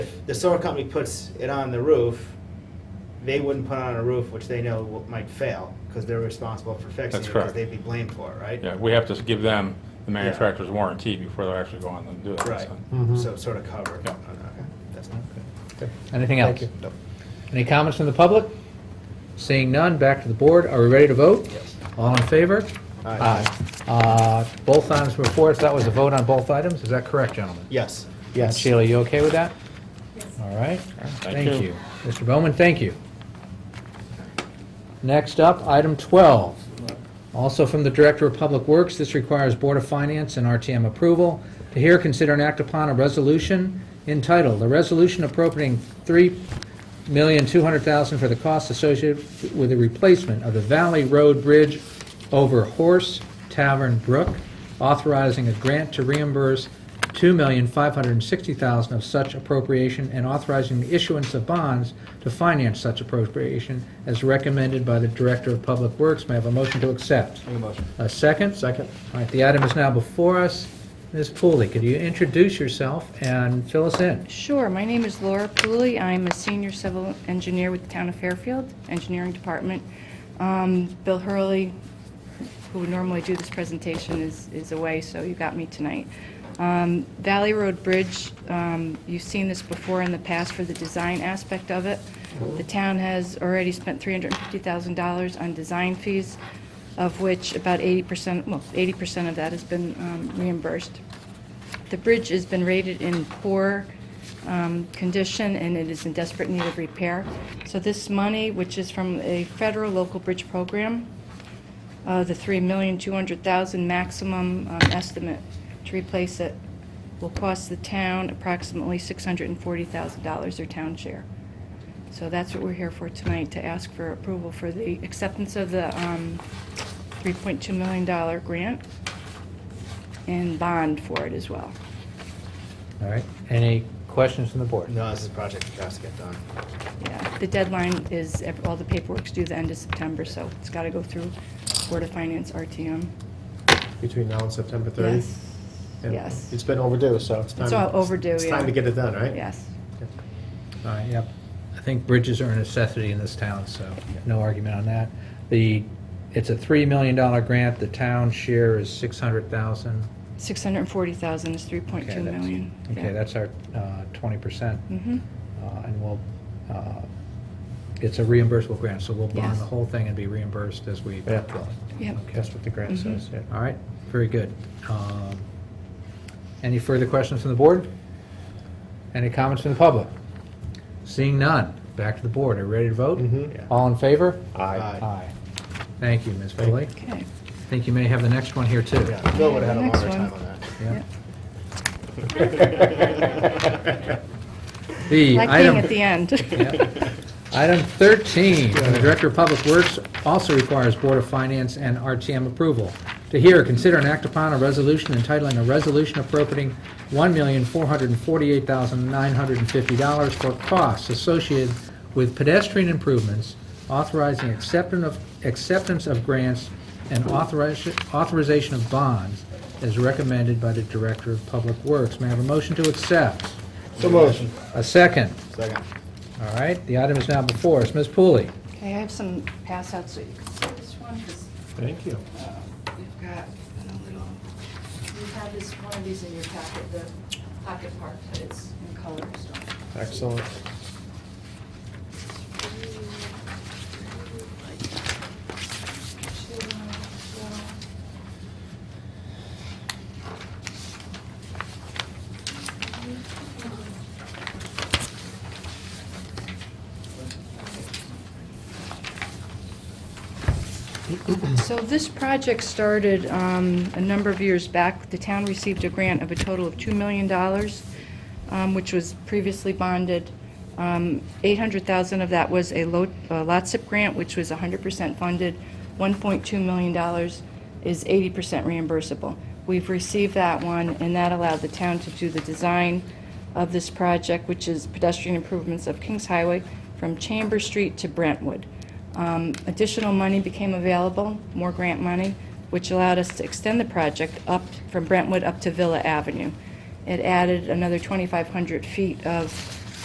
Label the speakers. Speaker 1: the solar company puts it on the roof, they wouldn't put it on a roof which they know will- might fail, because they're responsible for fixing it.
Speaker 2: That's
Speaker 1: Because
Speaker 2: correct.
Speaker 1: they'd be blamed for it, right?
Speaker 2: Yeah, we have to give them the manufacturer's warranty before they'll actually go on and do it.
Speaker 1: Right,
Speaker 2: so.
Speaker 3: Mhm.
Speaker 1: so sort of covered.
Speaker 2: Yeah.
Speaker 1: Okay, that's not good.
Speaker 4: Anything else?
Speaker 3: you.
Speaker 1: Nope.
Speaker 4: Any comments from the public? Seeing none, back to the board. Are we ready to vote?
Speaker 1: Yes.
Speaker 4: All in favor?
Speaker 1: Aye.
Speaker 4: Uh, Both items were for us. That was a vote on both items. Is that correct, gentlemen?
Speaker 1: Yes.
Speaker 3: Yes.
Speaker 4: Sheila, you okay with that? All right. Thank
Speaker 2: you.
Speaker 4: you. Mr. Bowman, thank you. Next up, item 12. Also from the Director of Public Works, this requires Board of Finance and RTM approval to here consider and act upon a resolution entitled, "A Resolution Appropriating $3,200,000 for the costs associated with the replacement of the Valley Road Bridge over Horse Tavern Brook, authorizing a grant to reimburse $2,560,000 of such appropriation and authorizing the issuance of bonds to finance such appropriation as recommended by the Director of Public Works. May I have a motion to accept?
Speaker 1: Make a motion.
Speaker 4: A second?
Speaker 3: Second?
Speaker 4: All right, the item is now before us. Ms. Pooley, could you introduce yourself and fill us in?
Speaker 5: Sure, my name is Laura Pooley. I'm a senior civil engineer with the town of Fairfield Engineering Department. Um, Bill Hurley, who would normally do this presentation, is is away, so you got me tonight. Um, Valley Road Bridge, um, you've seen this before in the past for the design aspect of it. The town has already spent $350,000 on design fees, of which about 80%, well, 80% of that has been um, reimbursed. The bridge has been rated in poor um, condition, and it is in desperate need of repair. So this money, which is from a federal local bridge program, uh, the $3,200,000 maximum um, estimate to replace it, will cost the town approximately $640,000, their town share. So that's what we're here for tonight, to ask for approval for the acceptance of the um, $3.2 million grant and bond for it as well.
Speaker 4: All right, any questions from the board?
Speaker 1: No, this is a project that has to get done.
Speaker 5: Yeah, the deadline is, ev- all the paperwork's due the end of September, so it's got to go through Board of Finance, RTM.
Speaker 3: Between now and September 30?
Speaker 5: Yes,
Speaker 3: Yeah.
Speaker 5: yes.
Speaker 3: It's been overdue, so it's time.
Speaker 5: It's all overdue,
Speaker 3: It's time
Speaker 5: yeah.
Speaker 3: to get it done, right?
Speaker 5: Yes.
Speaker 4: All right, yep. I think bridges are a necessity in this town, so no argument on that. The, it's a $3 million grant, the town share is 600,000.
Speaker 5: 640,000 is 3.2
Speaker 4: Okay, that's-
Speaker 5: million.
Speaker 4: Okay, that's our uh, 20%.
Speaker 5: hmm
Speaker 4: uh, And we'll, uh, it's a reimbursable grant, so we'll bond
Speaker 5: Yes.
Speaker 4: the whole thing and be reimbursed as we
Speaker 3: Yeah.
Speaker 4: go.
Speaker 5: Yep.
Speaker 4: Okay.
Speaker 3: That's what the grant
Speaker 5: Mhm.
Speaker 3: says, yeah.
Speaker 4: All right, very good. Um, Any further questions from the board? Any comments from the public? Seeing none, back to the board. Are you ready to vote?
Speaker 3: Mhm.
Speaker 1: Yeah.
Speaker 4: All in favor?
Speaker 3: Aye.
Speaker 4: Aye. Thank you, Ms.
Speaker 3: Thank you.
Speaker 4: Foley.
Speaker 5: Okay.
Speaker 4: I think you may have the next one here, too.
Speaker 1: Yeah, Bill would have had a
Speaker 5: Next
Speaker 1: longer time
Speaker 5: one.
Speaker 1: on that.
Speaker 4: Yeah.
Speaker 1: Yeah.
Speaker 4: The
Speaker 5: Like being
Speaker 4: item.
Speaker 5: at the end.
Speaker 4: Yeah. Item 13, from the Director of Public Works also requires Board of Finance and RTM approval. To hear, consider and act upon a resolution entitling a resolution appropriating $1,448,950 for costs associated with pedestrian improvements, authorizing acceptance of, acceptance of grants, and authorization, authorization of bonds as recommended by the Director of Public Works. May I have a motion to accept?
Speaker 3: So motion.
Speaker 4: A second?
Speaker 1: Second.
Speaker 4: All right, the item is now before us. Ms. Pooley?
Speaker 5: Okay, I have some pass outs so you can see this one, 'cause
Speaker 3: Thank you.
Speaker 5: we've got a little
Speaker 6: You have this, one of these in your packet, the pocket park, but it's in color, so.
Speaker 3: Excellent.
Speaker 5: So this project started um, a number of years back. The town received a grant of a total of $2 million, um, which was previously bonded. Um, $800,000 of that was a lo- a lot SIP grant, which was 100% funded. $1.2 million is 80% reimbursable. We've received that one, and that allowed the town to do the design of this project, which is pedestrian improvements of Kings Highway from Chamber Street to Brentwood. Um, Additional money became available, more grant money, which allowed us to extend the project up from Brentwood up to Villa Avenue. It added another 2,500 feet of